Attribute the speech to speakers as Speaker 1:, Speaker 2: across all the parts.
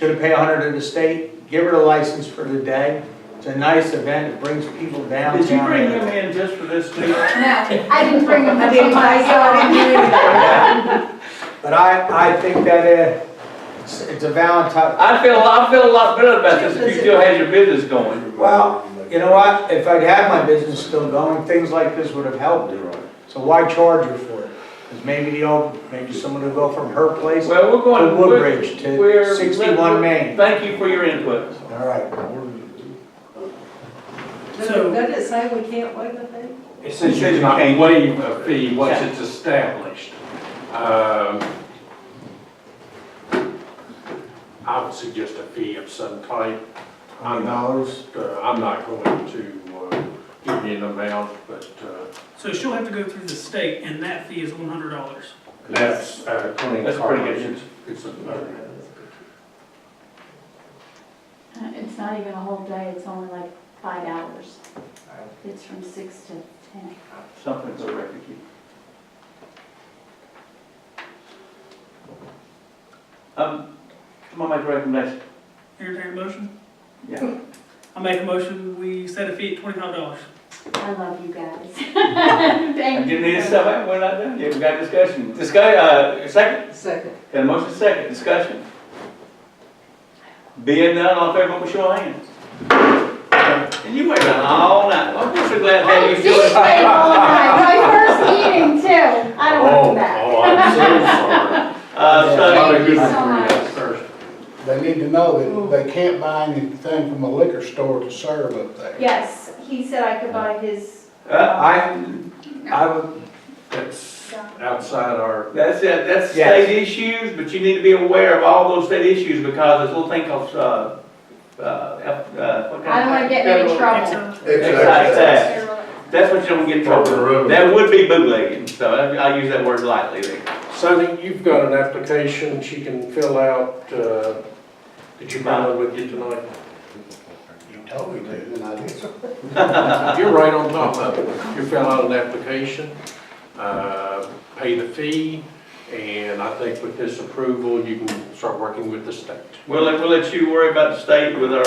Speaker 1: Gonna pay a hundred to the state, give her a license for the day. It's a nice event, it brings people downtown.
Speaker 2: Did you bring him in just for this too?
Speaker 3: No, I didn't bring them,
Speaker 4: I
Speaker 3: I
Speaker 4: didn't
Speaker 3: didn't
Speaker 4: buy
Speaker 1: But I, I think that uh, it's, it's a Valentine,
Speaker 2: I feel, I feel a lot better about this if you still had your business going.
Speaker 1: Well, you know what, if I'd had my business still going, things like this would have helped. So why charge her for it? Because maybe the old, maybe someone will go from her place to
Speaker 2: Well, we're going. to
Speaker 1: Woodbridge to sixty-one Main.
Speaker 2: Thank you for your input.
Speaker 1: All right.
Speaker 4: So, doesn't it say we can't waive the fee?
Speaker 5: It says you can waive a fee once it's established. Um, I would suggest a fee of some type. I'm not,
Speaker 1: dollars?
Speaker 5: uh, I'm not going to uh, give you an amount, but uh,
Speaker 6: So she'll have to go through the state, and that fee is one hundred dollars.
Speaker 5: that's uh, twenty.
Speaker 2: That's pretty good.
Speaker 5: It's a-
Speaker 7: Uh, It's not even a whole day, it's only like five hours. It's from six to ten.
Speaker 2: Something for record. Um, come on, make a recommendation.
Speaker 6: Entertained a motion?
Speaker 2: Yeah.
Speaker 6: I make a motion, we set a fee at twenty-five dollars.
Speaker 7: I love you guys. Thank
Speaker 2: Give me a
Speaker 7: you.
Speaker 2: second, we're not done yet, we got discussion. Discuss, uh, second,
Speaker 4: Second.
Speaker 2: got a motion second, discussion. Being none, all in favor, put your hands. And you were done all night, long. I'm so glad that
Speaker 7: I
Speaker 2: you
Speaker 7: did
Speaker 2: do it.
Speaker 7: stay all night, my first meeting too. I don't want to
Speaker 5: Oh,
Speaker 7: go back.
Speaker 5: oh, I'm so
Speaker 7: Oh,
Speaker 2: Uh, so,
Speaker 5: sorry. Not a
Speaker 7: Thank
Speaker 5: good
Speaker 7: you so
Speaker 5: one for you,
Speaker 7: much.
Speaker 5: sir.
Speaker 8: They need to know that they can't buy anything from a liquor store to serve up there.
Speaker 7: Yes, he said I could buy his,
Speaker 2: uh, I,
Speaker 1: I would,
Speaker 5: That's outside our
Speaker 2: that's it, that's
Speaker 1: Yes.
Speaker 2: state issues, but you need to be aware of all those state issues because this little thing called, uh, uh, F- uh, what kind of?
Speaker 7: I don't want to get in any trouble.
Speaker 2: Excise tax. That's what you don't get in trouble.
Speaker 5: Proper road.
Speaker 2: with. That would be bootlegging, so I, I use that word lightly there.
Speaker 5: Sonny, you've got an application she can fill out, uh, that you might would get tonight.
Speaker 8: You told me to, and I did.
Speaker 5: You're right on top of it. You fill out an application, uh, pay the fee, and I think with this approval, you can start working with the state.
Speaker 2: We'll, let- we'll let you worry about the state with our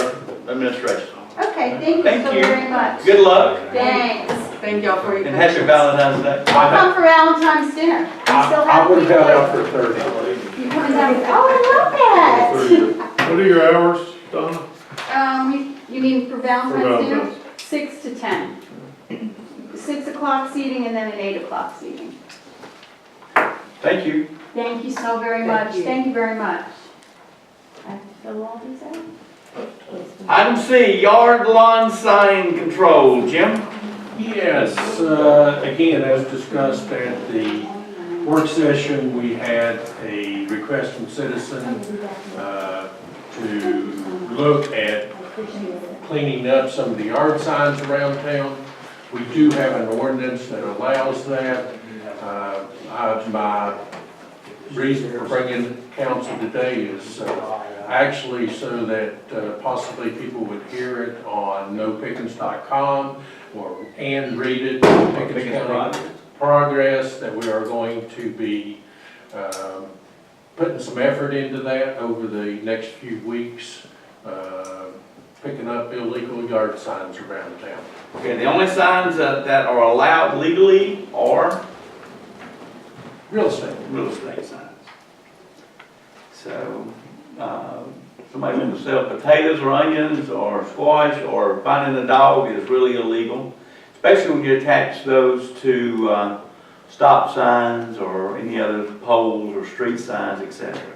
Speaker 2: administration.
Speaker 7: Okay, thank you
Speaker 2: Thank
Speaker 7: so
Speaker 2: you.
Speaker 7: very much.
Speaker 2: Good luck
Speaker 7: Thanks.
Speaker 4: Thank y'all for your
Speaker 2: and
Speaker 4: patience.
Speaker 2: happy Valentine's Day.
Speaker 7: I'll come for Valentine's dinner. I'm still
Speaker 5: I would
Speaker 7: happy.
Speaker 5: have got out for thirty.
Speaker 7: You coming down? Oh, I love that.
Speaker 5: What are your hours, Donna?
Speaker 7: Um, you- you mean for Valentine's dinner? Six to ten. Six o'clock seating and then an eight o'clock seating.
Speaker 2: Thank you.
Speaker 7: Thank you so very
Speaker 4: Thank
Speaker 7: much,
Speaker 4: you.
Speaker 7: thank you very much. I have to fill all these out?
Speaker 2: Item C, yard lawn sign control. Jim?
Speaker 5: Yes, uh, again, as discussed at the work session, we had a request from citizen uh, to look at cleaning up some of the yard signs around town. We do have an ordinance that allows that. Uh, I- My reason for bringing council today is uh, actually so that uh, possibly people would hear it on nopickens.com or, and read it, in Pickens County progress, that we are going to be um, putting some effort into that over the next few weeks, uh, picking up illegal yard signs around town.
Speaker 2: Okay, the only signs that, that are allowed legally are
Speaker 5: Real estate.
Speaker 2: real estate signs. So, uh, somebody wanting to sell potatoes or onions or squash or finding a dog is really illegal. Especially when you attach those to, uh, stop signs or any other poles or street signs, et cetera.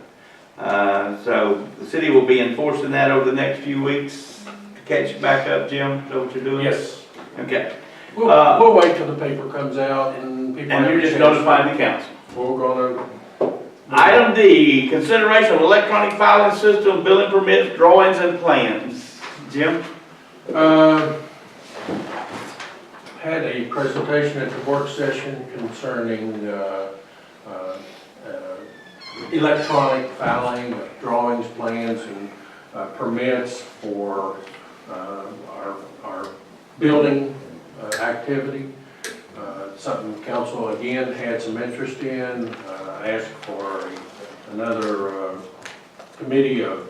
Speaker 2: Uh, so the city will be enforcing that over the next few weeks to catch you back up, Jim, is that what you're doing?
Speaker 5: Yes.
Speaker 2: Okay,
Speaker 5: We'll,
Speaker 2: Uh,
Speaker 5: we'll wait till the paper comes out and people.
Speaker 2: and
Speaker 5: have
Speaker 2: you're
Speaker 5: a
Speaker 2: just
Speaker 5: chance.
Speaker 2: notifying the council.
Speaker 5: We're gonna.
Speaker 2: Item D, consideration of electronic filing system, billing permits, drawings, and plans. Jim?
Speaker 5: Uh, Had a presentation at the work session concerning uh, uh, uh, electronic filing of drawings, plans, and uh, permits for uh, our, our building uh, activity. Uh, Something council again had some interest in, uh, asked for another uh, committee of